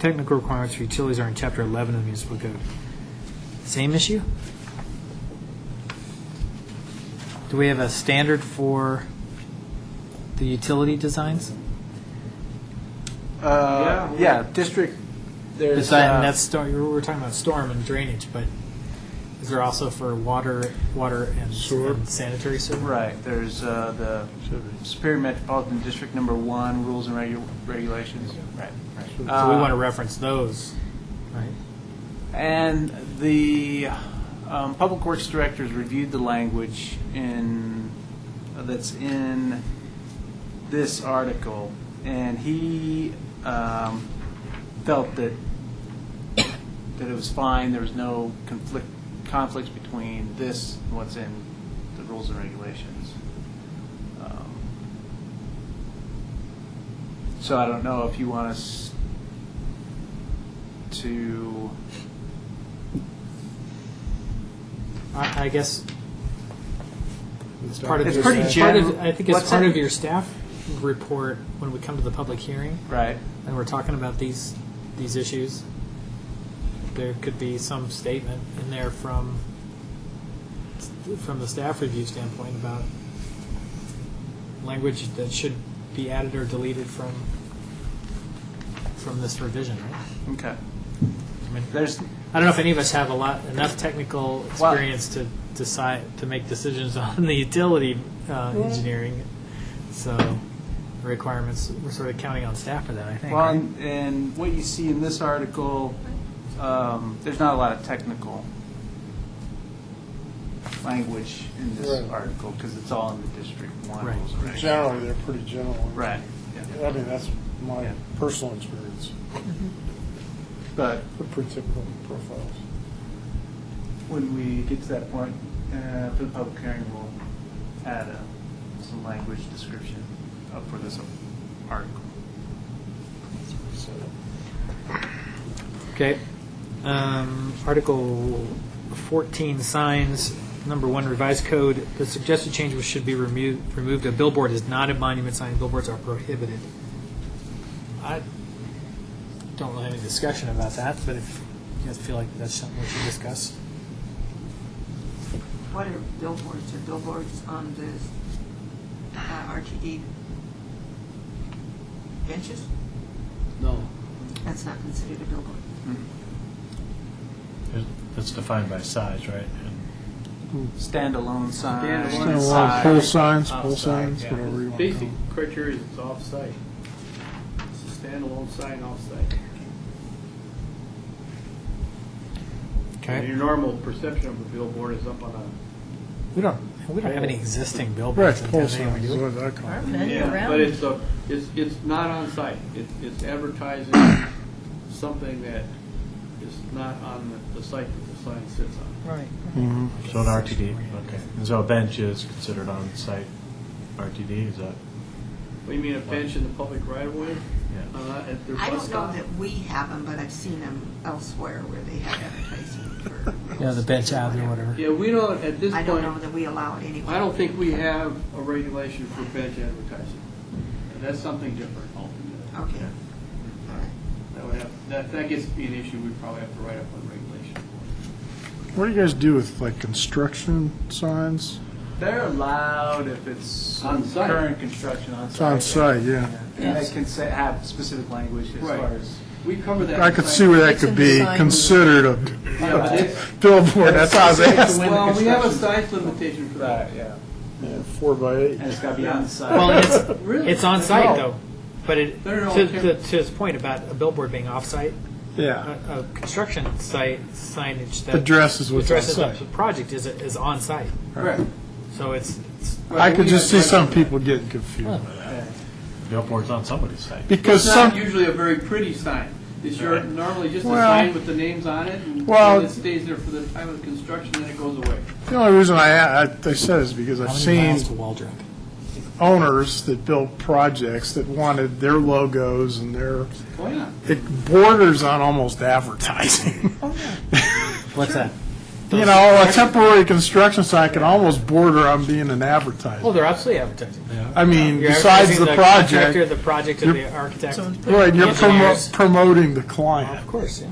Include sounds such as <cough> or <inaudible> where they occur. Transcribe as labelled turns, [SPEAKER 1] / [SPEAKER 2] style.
[SPEAKER 1] Technical requirements for utilities are in Chapter 11 of the municipal code. Same issue? Do we have a standard for the utility designs?
[SPEAKER 2] Uh, yeah, district, there's,
[SPEAKER 1] Design,
[SPEAKER 2] uh,
[SPEAKER 1] that's, stor- we were talking about storm and drainage, but is there also for water, water and and sanitary sewer?
[SPEAKER 2] right, there's, uh, the Superior Metropolitan District Number One, Rules and Regu- Regulations, right.
[SPEAKER 1] So we
[SPEAKER 2] Uh,
[SPEAKER 1] want to reference those, right?
[SPEAKER 2] And the um, Public Works Directors reviewed the language in, that's in this article, and he um, felt that, that it was fine, there was no conflict, conflicts between this and what's in the rules and regulations. Um, So I don't know if you want us to
[SPEAKER 1] I, I guess it's part of
[SPEAKER 2] It's
[SPEAKER 1] your
[SPEAKER 2] pretty
[SPEAKER 1] part of-
[SPEAKER 2] general.
[SPEAKER 1] I think it's
[SPEAKER 2] What's
[SPEAKER 1] part
[SPEAKER 2] that?
[SPEAKER 1] of your staff report when we come to the public hearing
[SPEAKER 2] Right.
[SPEAKER 1] and we're talking about these these issues. There could be some statement in there from from the staff review standpoint about language that should be added or deleted from from this revision, right?
[SPEAKER 2] Okay.
[SPEAKER 1] I mean,
[SPEAKER 2] There's
[SPEAKER 1] I don't know if any of us have a lot, enough technical
[SPEAKER 2] Well-
[SPEAKER 1] experience to decide, to make decisions <laughs> on the utility uh, engineering, so requirements, we're sort of counting on staff for that, I think.
[SPEAKER 2] well,
[SPEAKER 1] right?
[SPEAKER 2] and, and what you see in this article, um, there's not a lot of technical language in this
[SPEAKER 3] Right.
[SPEAKER 2] article because it's all in the district one
[SPEAKER 1] Right.
[SPEAKER 2] rules and regulations.
[SPEAKER 3] Generally, they're pretty general.
[SPEAKER 2] Right. Yeah.
[SPEAKER 3] I mean, that's my
[SPEAKER 2] Yeah.
[SPEAKER 3] personal experience,
[SPEAKER 2] But
[SPEAKER 3] They're pretty typical profiles.
[SPEAKER 2] when we get to that point uh, for the public hearing, we'll add a, some language description up for this article.
[SPEAKER 1] Okay. Um, Article 14, signs, number one, revised code, the suggested change was should be removed, removed, a billboard is not a monument sign, billboards are prohibited. I don't really have any discussion about that, but if you guys feel like that's something we should discuss.
[SPEAKER 4] What are billboards? Are billboards on the uh, RTD benches?
[SPEAKER 2] No.
[SPEAKER 4] That's not considered a billboard.
[SPEAKER 5] That's defined by size, right? And
[SPEAKER 2] Standalone sign.
[SPEAKER 3] Kind of like uh, pole signs, pole signs, whatever you want to call
[SPEAKER 6] Basic
[SPEAKER 3] them.
[SPEAKER 6] criteria is it's off-site. It's a standalone sign off-site. Your normal perception of a billboard is up on a.
[SPEAKER 1] We don't, we don't have any existing billboards.
[SPEAKER 3] Right,
[SPEAKER 1] in
[SPEAKER 3] pole
[SPEAKER 1] town anymore,
[SPEAKER 3] signs,
[SPEAKER 1] do we?
[SPEAKER 3] what I call them.
[SPEAKER 6] But it's a, it's, it's not on-site. It, it's advertising something that is not on the- the site that the sign sits on.
[SPEAKER 1] Right.
[SPEAKER 5] So an RTD, okay. And so a bench is considered on-site RTD, is that?
[SPEAKER 6] What do you mean, a bench in the public right-of-way?
[SPEAKER 5] Yeah.
[SPEAKER 6] Uh, At their
[SPEAKER 4] I
[SPEAKER 6] bus
[SPEAKER 4] don't know
[SPEAKER 6] stop?
[SPEAKER 4] that we have them, but I've seen them elsewhere where they have advertising for.
[SPEAKER 1] Yeah, the bench out or whatever.
[SPEAKER 6] Yeah, we don't, at this
[SPEAKER 4] I don't know
[SPEAKER 6] point,
[SPEAKER 4] that we allow it anywhere.
[SPEAKER 6] I don't think we have a regulation for bench advertising. That's something different altogether.
[SPEAKER 4] Okay. All right.
[SPEAKER 6] That would have, that, that gets to be an issue, we'd probably have to write up a regulation for.
[SPEAKER 3] What do you guys do with like construction signs?
[SPEAKER 2] They're allowed if it's
[SPEAKER 6] On site.
[SPEAKER 2] current construction on site.
[SPEAKER 3] It's on site, yeah.
[SPEAKER 2] And they can say, have specific language as
[SPEAKER 6] Right.
[SPEAKER 2] far as.
[SPEAKER 6] We cover that.
[SPEAKER 3] I could see where that could be considered a
[SPEAKER 6] Yeah, but it's-
[SPEAKER 3] <laughs> billboard, that's how I was asking.
[SPEAKER 6] Well, we have a size limitation for that.
[SPEAKER 2] yeah.
[SPEAKER 3] Yeah, <laughs> Four by eight.
[SPEAKER 2] And it's gotta be on site.
[SPEAKER 1] Well, it's,
[SPEAKER 6] Really?
[SPEAKER 1] it's on-site though, but it,
[SPEAKER 6] They're all
[SPEAKER 1] to, to,
[SPEAKER 6] different.
[SPEAKER 1] to his point about a billboard being off-site,
[SPEAKER 3] Yeah,
[SPEAKER 1] a, a construction site signage that.
[SPEAKER 3] Addresses what's
[SPEAKER 1] addresses
[SPEAKER 3] on-site.
[SPEAKER 1] the project is, is on-site,
[SPEAKER 6] Correct.
[SPEAKER 1] so it's, it's,
[SPEAKER 3] I could
[SPEAKER 6] We
[SPEAKER 3] just see
[SPEAKER 6] have-
[SPEAKER 3] some people getting confused.
[SPEAKER 5] Billboard's on somebody's site.
[SPEAKER 3] Because
[SPEAKER 6] It's not
[SPEAKER 3] some,
[SPEAKER 6] usually a very pretty sign. It's your, normally just a
[SPEAKER 3] Well-
[SPEAKER 6] sign with the names on it and
[SPEAKER 3] Well-
[SPEAKER 6] and it stays there for the time of construction, then it goes away.
[SPEAKER 3] the only reason I, a- I I said is because I've
[SPEAKER 1] how many
[SPEAKER 3] seen
[SPEAKER 1] miles to Waldrop?
[SPEAKER 3] owners that built projects that wanted their logos and their,
[SPEAKER 6] Why not?
[SPEAKER 3] it borders on almost advertising. <laughs>
[SPEAKER 1] What's that?
[SPEAKER 3] You know, a temporary construction site can almost border on being an advertisement.
[SPEAKER 1] Well, Oh, they're absolutely advertising.
[SPEAKER 3] I mean,
[SPEAKER 1] You're
[SPEAKER 3] besides
[SPEAKER 1] advertising
[SPEAKER 3] the
[SPEAKER 1] contractor,
[SPEAKER 3] project,
[SPEAKER 1] The project of
[SPEAKER 3] You're-
[SPEAKER 1] the architect.
[SPEAKER 3] right, you're promo-
[SPEAKER 1] engineers.
[SPEAKER 3] promoting the client.
[SPEAKER 1] Of course, yeah.